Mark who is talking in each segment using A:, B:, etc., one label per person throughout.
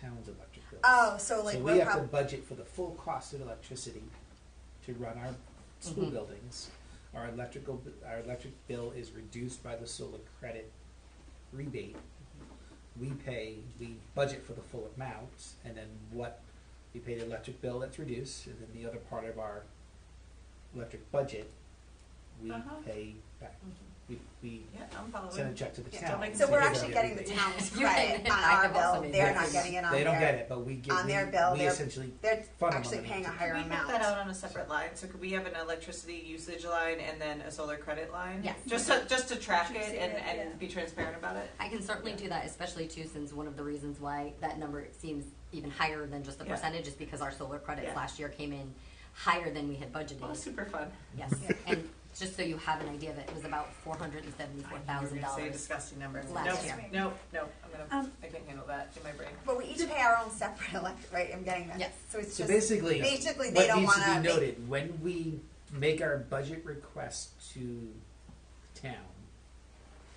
A: town's electric bill.
B: Oh, so like
A: So
B: we're
A: we have to
B: prob-
A: budget for the full cost of electricity to run our school
B: Mm-hmm.
C: Mhm.
A: buildings. Our electrical, b- our electric bill is reduced by the solar credit rebate. We pay, we budget for the full amount, and then what, we pay the electric bill that's reduced, and then the other part of our electric budget, we
C: Uh-huh.
A: pay back. We, we
C: Yeah, I'm
A: send a
C: following.
A: check to the
C: Yeah, don't
A: town.
C: make
B: so
C: them
B: we're
A: They
C: do
B: actually
A: don't
B: getting the
A: rebate.
B: town's
D: You're
B: credit
D: getting
B: on
D: it. I
B: our
D: have also
B: bill.
D: made
B: They're
D: that
B: not
D: mistake.
B: getting it on
A: They don't get
B: their.
A: it, but we get,
B: on
A: we,
B: their bill,
A: we
B: they're-
A: essentially,
B: They're
A: Fund
B: actually
A: them.
B: paying a
A: Could
B: higher
C: Could we
B: amount.
C: have that out on a separate line? So could we have an electricity usage line and then a solar credit line?
D: Yes.
C: Just to, just to track
E: Should
C: it
E: we say
C: and,
E: that? Yeah.
C: and be transparent about it?
D: I can certainly do that, especially too, since one of the reasons why that number seems even higher than just the
C: Yeah.
D: percentage is because our solar credits
C: Yeah.
D: last year came in higher than we had
C: Oh,
D: budgeted.
C: super fun.
D: Yes, and just so you have an idea of it, it was about four hundred and seventy-four thousand
C: You're gonna Say a
D: dollars.
C: disgusting number.
D: last
C: Nope,
D: year.
C: Nope, nope, I'm gonna,
E: Um,
C: I can't handle that in my brain.
B: But we each pay our own separate electric, right? I'm getting that.
D: Yes.
B: So it's
A: so
B: just
A: basically,
B: basically they
A: what
B: don't
A: needs
B: want
A: to be
B: to.
A: noted, when we make our budget request to town,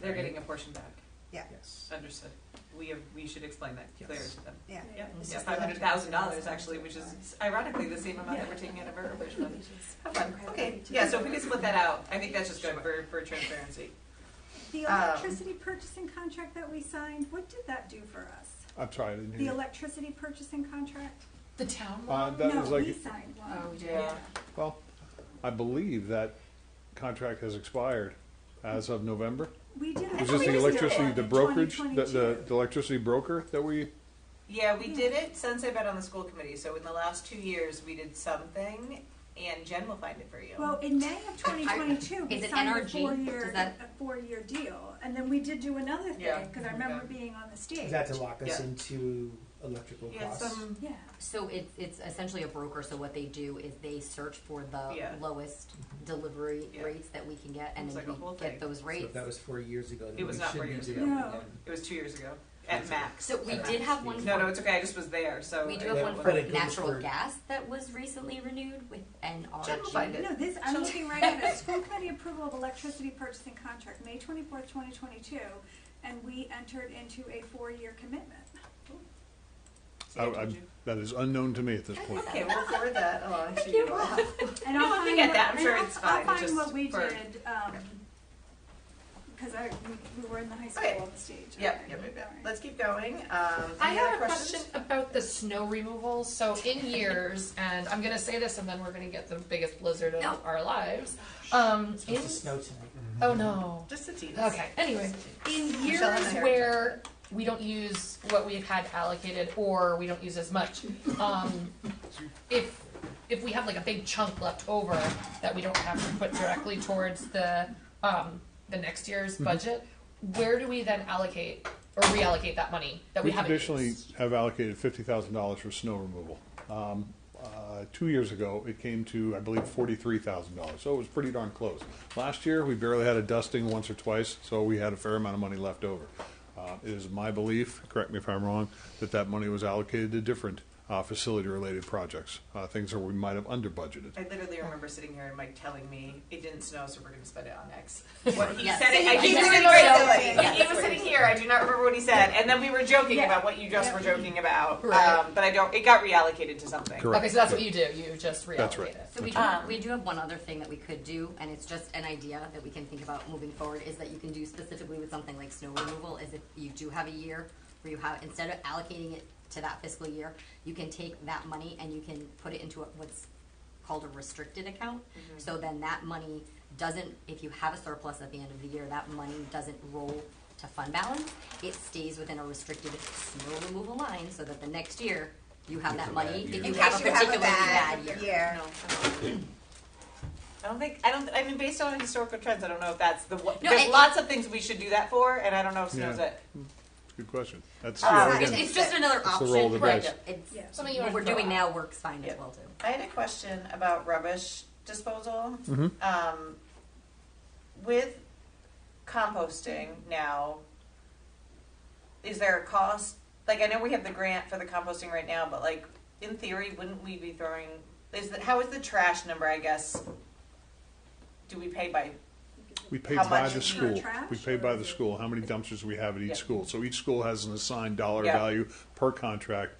C: They're
A: Right.
C: getting a portion back,
A: yes.
C: understood. We have, we should explain that clear
A: Yes.
C: to them.
B: Yeah.
C: Yeah,
B: It's
C: yeah,
B: just the
C: five hundred thousand dollars
B: electricity.
C: actually, which is ironically the same amount that we're taking out of our original. Have fun,
E: Credit
C: okay,
E: card.
C: yeah, so if we can split that out, I think that's just good for, for transparency.
E: The
C: Um,
E: electricity purchasing contract that we signed, what did that do for us?
F: I'm sorry, I didn't
E: The
F: hear. you.
E: electricity purchasing contract?
G: The town
F: Uh,
G: one?
F: that was
E: No, we
F: like,
E: signed
G: Oh,
E: one.
C: Yeah.
F: well, I believe that contract has expired as of November.
E: We did.
F: It was just the electricity, the brokerage, the, the the electricity broker that we,
C: Yeah, we did it since I've been on the school committee, so in the last two years, we did something, and Jen will find it for you.
E: Well, in May of twenty twenty-two, we
D: Is it
E: signed a
D: NRG?
E: four-year,
D: Does that-
E: a four-year deal, and then we did do another
C: Yeah.
E: thing, cause I remember
C: Okay.
E: being on the stage.
A: Is that to lock us
C: Yeah.
A: into electrical
C: Yeah,
A: costs?
C: some,
E: Yeah,
D: So it's, it's essentially a broker, so what they do is they search for
C: Yeah.
D: the lowest delivery
C: Yeah.
D: rates that we can get, and
C: It's
D: then
C: like a whole
D: we
C: thing.
D: get those
A: So
D: rates.
A: if that was four years ago,
C: It
A: then we
C: was not four
A: shouldn't
C: years
A: be
C: ago.
A: doing
E: No.
A: that.
C: it was two years ago, at max.
D: So we
C: At
D: did
C: max.
D: have one
C: No, no,
D: for-
C: it's okay, I just was there, so.
D: We do
C: I-
D: have one
A: but
D: for
A: it goes
D: natural
A: for-
D: gas that was recently renewed with NRG.
C: General fund.
E: no, this, I'm looking right at it, school committee approval of electricity purchasing contract, May twenty-fourth, twenty twenty-two, and we entered into a four-year commitment.
C: So
F: I-
C: did
F: uh, I-
C: you-
F: that is unknown to me at this point.
C: Okay, we'll forward that along to
D: you.
C: you all.
E: And
C: No,
E: I'll
C: I
E: find
C: think I-
E: what,
C: that- I'm sure
E: and
C: it's
E: I'll,
C: fine,
E: I'll find
C: just
E: what we
C: for-
E: did, um, cause I, we, we were in the high
C: Okay.
E: school on the stage.
C: Yep, yep,
E: Okay,
C: yep, yep.
E: all right.
C: Let's keep going. Um,
G: I
C: any other
G: have a
C: questions?
G: question about the snow removal. So in years, and I'm gonna say this, and then we're gonna get the biggest blizzard of
D: No.
G: our lives. Um,
A: It's
G: in,
A: supposed to snow tonight.
G: oh no.
C: Just a tease.
G: Okay. Anyway, in years
C: Michelle and I are-
G: where we don't use what we've had allocated, or we don't use as much, um, if if we have like a big chunk left over that we don't have to put directly towards the um, the next year's
F: Mm-hmm.
G: budget, where do we then allocate or reallocate that money that we,
F: We
G: haven't
F: traditionally
G: used?
F: have allocated fifty thousand dollars for snow removal. Um, uh, Two years ago, it came to, I believe, forty-three thousand dollars, so it was pretty darn close. Last year, we barely had a dusting once or twice, so we had a fair amount of money left over. Uh, It is my belief, correct me if I'm wrong, that that money was allocated to different uh, facility-related projects, uh, things that we might have under-budgeted.
C: I literally remember sitting here and Mike telling me it didn't snow, so we're going to spend it on X. What he
D: Yes.
C: said it, I
D: He
C: do
D: said
C: remember
D: it
C: it.
D: so
C: He-
D: late.
C: He was sitting here. I do not remember what he said, and then we were joking
G: Yeah.
C: about what you just were joking about.
G: Right.
C: Um, but I don't. It got reallocated to something.
F: Correct.
G: Okay, so that's what you do. You just reallocate
F: That's right.
G: it.
D: So we do,
C: Um,
D: we do have one other thing that we could do, and it's just an idea that we can think about moving forward, is that you can do specifically with something like snow removal, is if you do have a year where you have, instead of allocating it to that fiscal year, you can take that money and you can put it into a- what's called a restricted account.
B: Mm-hmm.
D: So then that money doesn't, if you have a surplus at the end of the year, that money doesn't roll to fund balance. It stays within a restricted snow removal line, so that the next year, you have that money, if you
B: In
D: have a
B: case you have
D: particularly
B: a bad
D: bad year.
B: year.
C: I don't think. I don't. I mean, based on historical trends, I don't know if that's the. one-
D: No,
C: There's
D: it-
C: lots of things we should do that for, and I don't know if snow's
F: Yeah.
C: it.
F: Good question. That's,
C: Uh,
F: yeah,
D: It's,
F: again,
D: it's just another
F: the
D: option.
F: roll of the
G: Right.
F: dice.
D: It's,
E: Yeah.
G: Something you
D: what
G: wanna
D: we're
G: throw
D: doing
G: out.
D: now works fine
C: Yeah.
D: as well too.
C: I had a question about rubbish disposal. Um, with composting now, is there a cost? Like, I know we have the grant for the composting right now, but like, in theory, wouldn't we be throwing, is the, how is the trash number, I guess? Do we pay by
F: We pay
C: How
F: by
C: much
F: the
C: is
E: per
F: school.
E: trash,
F: We pay by the
E: or-
F: school, how many dumpsters we have at
C: Yeah.
F: each school. So each school has an assigned dollar
C: Yeah.
F: value per contract